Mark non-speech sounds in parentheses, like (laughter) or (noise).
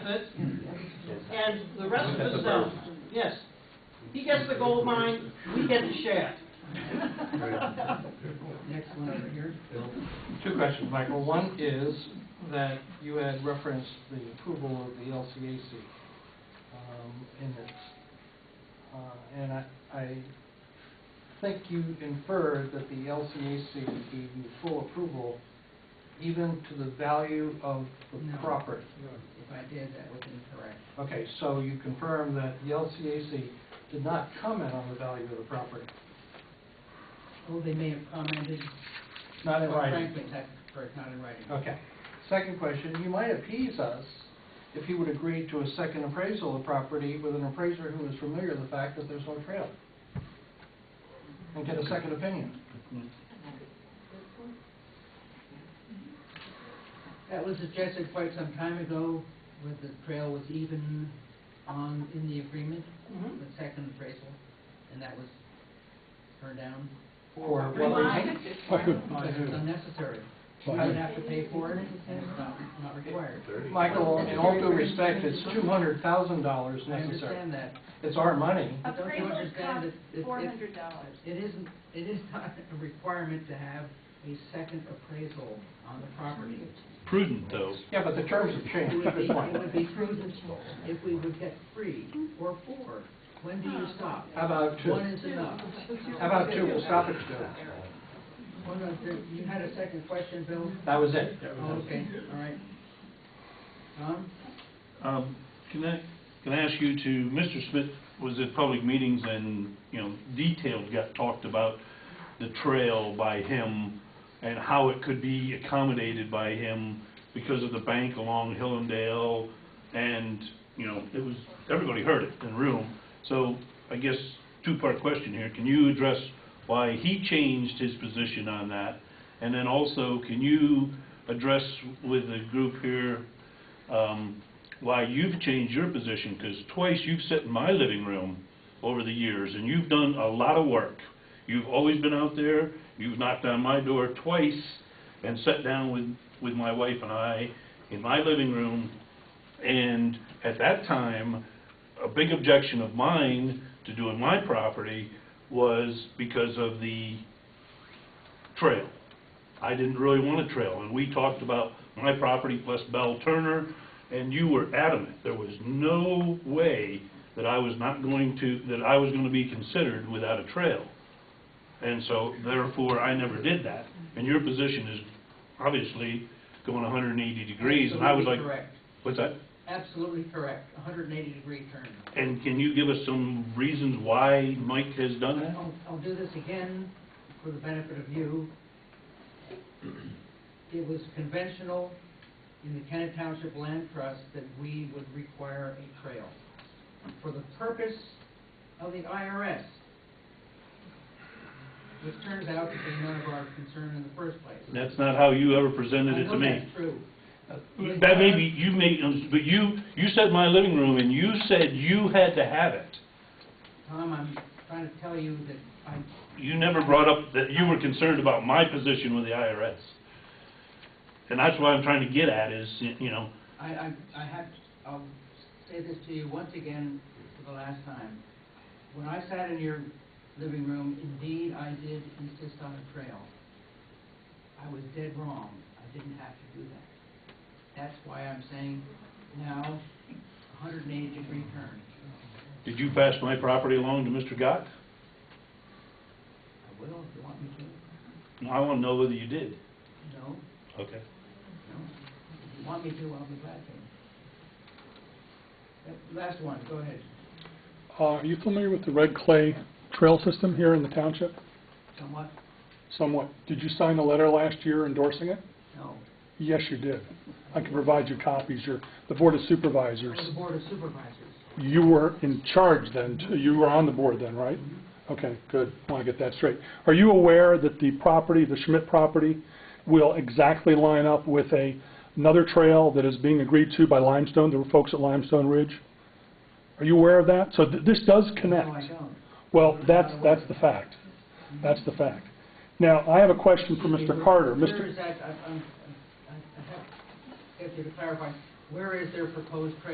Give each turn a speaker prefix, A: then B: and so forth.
A: it, and the rest of us don't. Yes. He gets the gold mine, we get the shaft.
B: Next one over here, Bill.
C: Two questions, Michael. One is that you had referenced the approval of the LCAC um, in this. Uh, And I, I think you inferred that the LCAC gave you full approval even to the value of the
B: No.
C: property.
B: If I did, that was incorrect.
C: Okay, so you confirm that the LCAC did not comment on the value of the property,
B: Oh, they may have commented.
C: not in
B: Well,
C: writing?
B: Frankly, that's correct, not in writing.
C: Okay. Second question, you might appease us if you would agree to a second appraisal of property with an appraiser who is familiar with the fact that there's no trail. And get a second opinion.
B: That was suggested quite some time ago, where the trail was even on, in the agreement,
A: Mhm.
B: the second appraisal, and that was turned down.
C: For what
A: Why?
C: reason? (laughs)
B: Because it's unnecessary. We
C: Why?
B: would have to pay for it, and it's not, not required.
C: Michael, in all due respect, it's two hundred thousand dollars
B: I
C: necessary.
B: understand that.
C: It's our money.
B: But don't you
D: Appraisals cost
B: understand that it- it-
D: four hundred dollars.
B: It isn't, it is (laughs) not a requirement to have a second appraisal on the property.
E: Prudent, though.
C: Yeah, but the terms have
B: It
C: changed,
B: would be,
C: good
B: it
C: point.
B: would be prudent if we would get three or four. When do you stop?
C: How about two?
B: One is enough.
C: How about two, we'll stop at two.
B: Well, no, there- you had a second question, Bill?
C: That was it.
B: Oh, okay, all right. Tom?
E: Um, Can I, can I ask you to, Mr. Smith was at public meetings and, you know, details got talked about the trail by him and how it could be accommodated by him because of the bank along Hillendale and, you know, it was, everybody heard it in the room. So I guess, two-part question here. Can you address why he changed his position on that? And then also, can you address with the group here, um, why you've changed your position, because twice you've sat in my living room over the years, and you've done a lot of work. You've always been out there, you've knocked on my door twice, and sat down with, with my wife and I in my living room, and at that time, a big objection of mine to doing my property was because of the trail. I didn't really want a trail, and we talked about my property plus Bell Turner, and you were adamant. There was no way that I was not going to, that I was gonna be considered without a trail. And so therefore, I never did that. And your position is obviously going hundred and eighty degrees, and I was like,
B: Absolutely correct.
E: what's that?
B: Absolutely correct, 180 degree turn.
E: And can you give us some reasons why Mike has done that?
B: I'll, I'll do this again for the benefit of you. It was conventional in the Kennet Township Land Trust that we would require a trail for the purpose of the IRS, which turns out to be none of our concern in the first place.
E: That's not how you ever presented it
B: I
E: to
B: know
E: me.
B: that's true.
E: Uh, That may be, you may, um, but you, you said my living room, and you said you had to have it.
B: uh, Tom, I'm trying to tell you that I'm,
E: You never brought up that you were concerned about my position with the IRS. And that's what I'm trying to get at is, you know,
B: I, I, I have, I'll say this to you once again for the last time. When I sat in your living room, indeed, I did insist on a trail. I was dead wrong. I didn't have to do that. That's why I'm saying now, 180 degree turn.
E: did you pass my property along to Mr. Gott?
B: I will if you want me to.
E: No, I want to know whether you did.
B: No,
E: Okay.
B: no. If you want me to, I'll be glad to. That- Last one, go ahead.
F: Uh, Are you familiar with the red clay trail system here in the township?
B: Somewhat?
F: Somewhat. Did you sign a letter last year endorsing it?
B: No.
F: Yes, you did. I can provide you copies. Your, the Board of Supervisors,
B: For the Board of Supervisors.
F: you were in charge then, t- you were on the board then, right? Okay, good. I want to get that straight. Are you aware that the property, the Schmidt property, will exactly line up with a, another trail that is being agreed to by Limestone, the folks at Limestone Ridge? Are you aware of that? So th- this does connect.
B: No, I don't.
F: Well, that's, that's the fact. That's the fact. Now, I have a question for
B: Excuse me,
F: Mr.
B: where-
F: Carter.
B: Where
F: Mr.
B: is that, I, I'm- I, I have, I have to clarify, where is their proposed trail